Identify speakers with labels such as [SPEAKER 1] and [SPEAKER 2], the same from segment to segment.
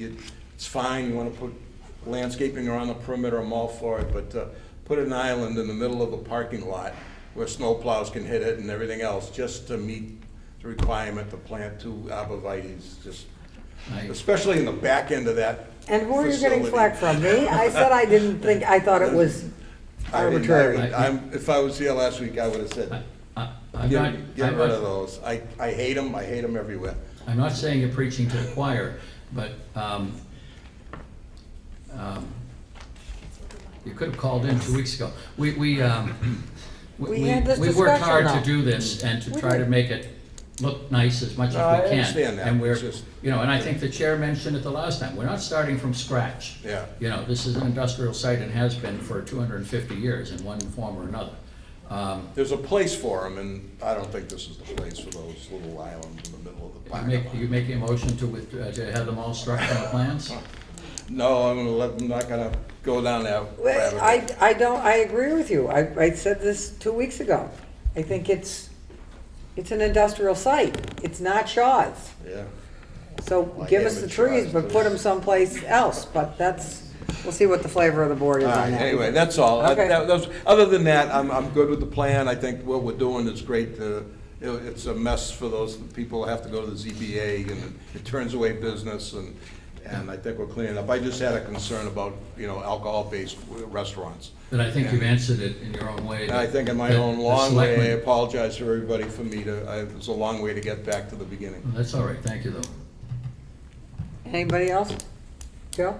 [SPEAKER 1] you- it's fine, you want to put landscaping around the perimeter, I'm all for it, but uh, put an island in the middle of a parking lot where snowplows can hit it and everything else, just to meet the requirement to plant two arborvitae's, just,
[SPEAKER 2] I-
[SPEAKER 1] especially in the back end of that
[SPEAKER 3] And who are you getting
[SPEAKER 1] facility.
[SPEAKER 3] flack from? Me? I said I didn't think, I thought it
[SPEAKER 1] I
[SPEAKER 3] was
[SPEAKER 1] mean, I
[SPEAKER 3] arbitrary.
[SPEAKER 1] would- I'm, if I was here last week, I would have said,
[SPEAKER 2] I- I'm not,
[SPEAKER 1] get get
[SPEAKER 2] I'm
[SPEAKER 1] rid of
[SPEAKER 2] not,
[SPEAKER 1] those. I, I hate them, I hate them everywhere.
[SPEAKER 2] I'm not saying you're preaching to the choir, but, um, um, you could have called in two weeks ago. We, we, um, we,
[SPEAKER 3] We
[SPEAKER 2] we
[SPEAKER 3] had this
[SPEAKER 2] we worked
[SPEAKER 3] discussion
[SPEAKER 2] hard
[SPEAKER 3] now.
[SPEAKER 2] to do this and to
[SPEAKER 3] We
[SPEAKER 2] try to
[SPEAKER 3] did.
[SPEAKER 2] make it look nice as much as we
[SPEAKER 1] No,
[SPEAKER 2] can.
[SPEAKER 1] I understand that.
[SPEAKER 2] And we're,
[SPEAKER 1] It's just-
[SPEAKER 2] you know, and I think the chair mentioned it the last time, we're not starting from scratch.
[SPEAKER 1] Yeah.
[SPEAKER 2] You know, this is an industrial site and has been for two hundred and fifty years in one form or another. Um,
[SPEAKER 1] There's a place for them, and I don't think this is the place for those little islands in the middle of the
[SPEAKER 2] You
[SPEAKER 1] parking
[SPEAKER 2] make, you
[SPEAKER 1] lot.
[SPEAKER 2] make a motion to, with- uh, to have them all struck from the plans?
[SPEAKER 1] No, I'm gonna let, I'm not gonna go down that rabbit
[SPEAKER 3] Well,
[SPEAKER 1] hole.
[SPEAKER 3] I, I don't, I agree with you. I, I said this two weeks ago. I think it's, it's an industrial site. It's not Shaw's.
[SPEAKER 1] Yeah,
[SPEAKER 3] So
[SPEAKER 1] Like
[SPEAKER 3] give us the
[SPEAKER 1] amateur
[SPEAKER 3] trees, but
[SPEAKER 1] artists.
[SPEAKER 3] put them someplace else. But that's, we'll see what the flavor of the board is
[SPEAKER 1] all
[SPEAKER 3] on
[SPEAKER 1] right,
[SPEAKER 3] that.
[SPEAKER 1] anyway, that's all. I-
[SPEAKER 3] Okay.
[SPEAKER 1] that- those- Other than that, I'm, I'm good with the plan, I think what we're doing is great, uh, you know, it's a mess for those people who have to go to the ZBA, and it turns away business, and, and I think we're cleaning up. I just had a concern about, you know, alcohol-based restaurants.
[SPEAKER 2] But I think you've answered it in your own way.
[SPEAKER 1] And I think in my
[SPEAKER 2] that
[SPEAKER 1] own
[SPEAKER 2] the
[SPEAKER 1] long way, I
[SPEAKER 2] selectmen-
[SPEAKER 1] apologize for everybody for me to, I- it's a long way to get back to the beginning.
[SPEAKER 2] That's all right, thank you, though.
[SPEAKER 3] Anybody else? Joe?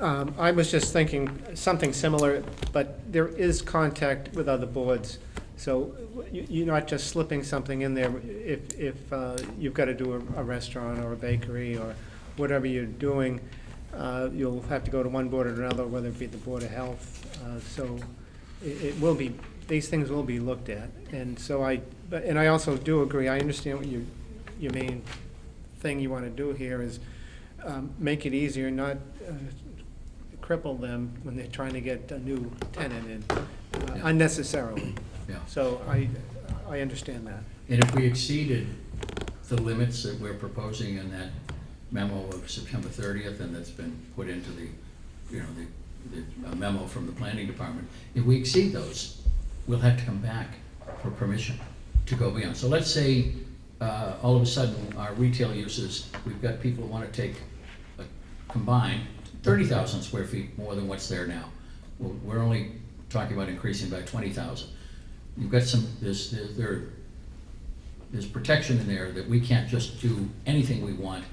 [SPEAKER 4] Um, I was just thinking something similar, but there is contact with other boards. So you- you're not just slipping something in there if, if uh, you've got to do a a restaurant or a bakery or whatever you're doing. uh, You'll have to go to one board or another, whether it be the Board of Health. Uh, So it, it will be, these things will be looked at. And so I, but, and I also do agree, I understand what your, your main thing you want to do here is um, make it easier, not uh, cripple them when they're trying to get a new tenant in uh,
[SPEAKER 2] Yeah.
[SPEAKER 4] unnecessarily.
[SPEAKER 2] Yeah.
[SPEAKER 4] So I, I understand that.
[SPEAKER 2] And if we exceeded the limits that we're proposing in that memo of September 30th, and that's been put into the, you know, the the uh, memo from the planning department, if we exceed those, we'll have to come back for permission to go beyond. So let's say, uh, all of a sudden, our retail uses, we've got people who want to take a combined 30,000 square feet more than what's there now. We're we're only talking about increasing by 20,000. You've got some, there's, there- there are there's protection in there that we can't just do anything we want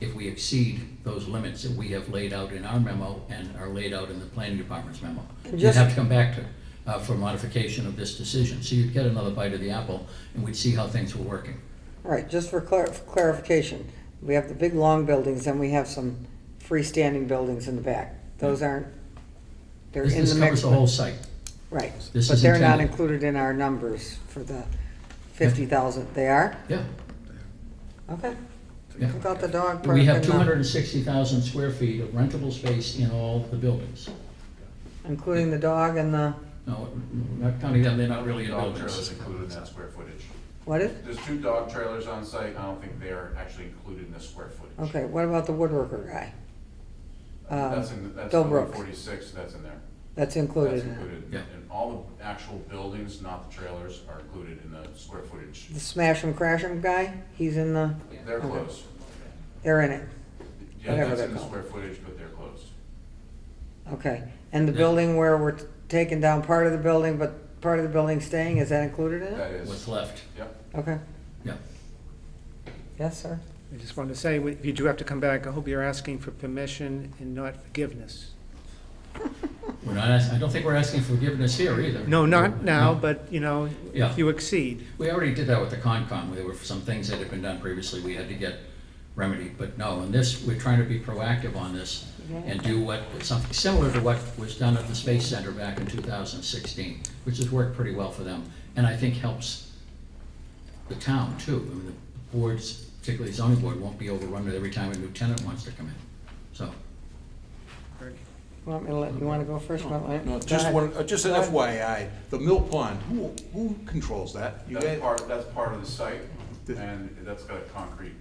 [SPEAKER 2] if we exceed those limits that we have laid out in our memo and are laid out in the planning department's memo. You'd have to come back to, uh, for modification of this decision. So you'd get another bite of the apple and we'd see how things were working.
[SPEAKER 3] All right, just for clar- for clarification, we have the big, long buildings, and we have some freestanding buildings in the back. Those aren't, they're
[SPEAKER 2] This
[SPEAKER 3] in the
[SPEAKER 2] this covers
[SPEAKER 3] mix.
[SPEAKER 2] the whole site.
[SPEAKER 3] Right,
[SPEAKER 2] This
[SPEAKER 3] but
[SPEAKER 2] is
[SPEAKER 3] they're not
[SPEAKER 2] intended.
[SPEAKER 3] included in our numbers for the fifty thousand. They are?
[SPEAKER 2] Yeah,
[SPEAKER 3] Okay.
[SPEAKER 2] yeah.
[SPEAKER 3] What About the dog park.
[SPEAKER 2] We have
[SPEAKER 3] and the-
[SPEAKER 2] two hundred and sixty thousand square feet of rentable space in all the buildings.
[SPEAKER 3] Including the dog and the,
[SPEAKER 2] No, not counting them, they're not really in
[SPEAKER 5] Dog trailers
[SPEAKER 2] buildings.
[SPEAKER 5] included in that square footage.
[SPEAKER 3] what is,
[SPEAKER 5] There's two dog trailers on site, I don't think they're actually included in the square footage.
[SPEAKER 3] okay, what about the woodworker guy? Uh,
[SPEAKER 5] That's in, that's building
[SPEAKER 3] Delbrook.
[SPEAKER 5] forty-six, that's in there.
[SPEAKER 3] That's
[SPEAKER 5] That's
[SPEAKER 3] included. in it.
[SPEAKER 5] included.
[SPEAKER 2] Yeah.
[SPEAKER 5] And all the actual buildings, not the trailers, are included in the square footage.
[SPEAKER 3] The smash and crash 'em guy, he's in the,
[SPEAKER 5] They're
[SPEAKER 3] Okay.
[SPEAKER 5] close.
[SPEAKER 3] they're in it.
[SPEAKER 5] Yeah,
[SPEAKER 3] Whatever
[SPEAKER 5] that's
[SPEAKER 3] they're
[SPEAKER 5] in the
[SPEAKER 3] called.
[SPEAKER 5] square footage, but they're close.
[SPEAKER 3] Okay, and the
[SPEAKER 2] Yeah.
[SPEAKER 3] building where we're t- taking down part of the building, but part of the building staying, is that included in
[SPEAKER 5] That
[SPEAKER 3] it?
[SPEAKER 5] is,
[SPEAKER 2] What's left,
[SPEAKER 5] yep.
[SPEAKER 3] Okay,
[SPEAKER 2] yeah.
[SPEAKER 3] yes, sir.
[SPEAKER 4] I just wanted to say, if you do have to come back, I hope you're asking for permission and not forgiveness.
[SPEAKER 2] We're not, ask- I don't think we're asking forgiveness here either.
[SPEAKER 4] No, not now,
[SPEAKER 2] No.
[SPEAKER 4] but, you know,
[SPEAKER 2] Yeah.
[SPEAKER 4] if you exceed.
[SPEAKER 2] We already did that with the Concom, there were some things that had been done previously we had to get remedied, but no, in this, we're trying to be proactive on this and do what, something similar to what was done at the Space Center back in two thousand sixteen, which has worked pretty well for them, and I think helps the town too. I mean, the boards, particularly zoning board, won't be overrun every time a new tenant wants to come in, so.
[SPEAKER 3] Want me to let, you wanna go first? Matt? Go
[SPEAKER 1] No, just
[SPEAKER 3] ahead.
[SPEAKER 1] one, uh, just an
[SPEAKER 3] Go ahead.
[SPEAKER 1] FYI, the mill pond, who, who controls
[SPEAKER 5] Uh,
[SPEAKER 1] that? You
[SPEAKER 5] That's
[SPEAKER 1] guys,
[SPEAKER 5] part, that's part of the site,
[SPEAKER 1] This-
[SPEAKER 5] and that's got a concrete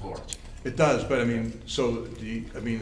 [SPEAKER 5] floor.
[SPEAKER 1] It does, but I mean, so, do you, I mean,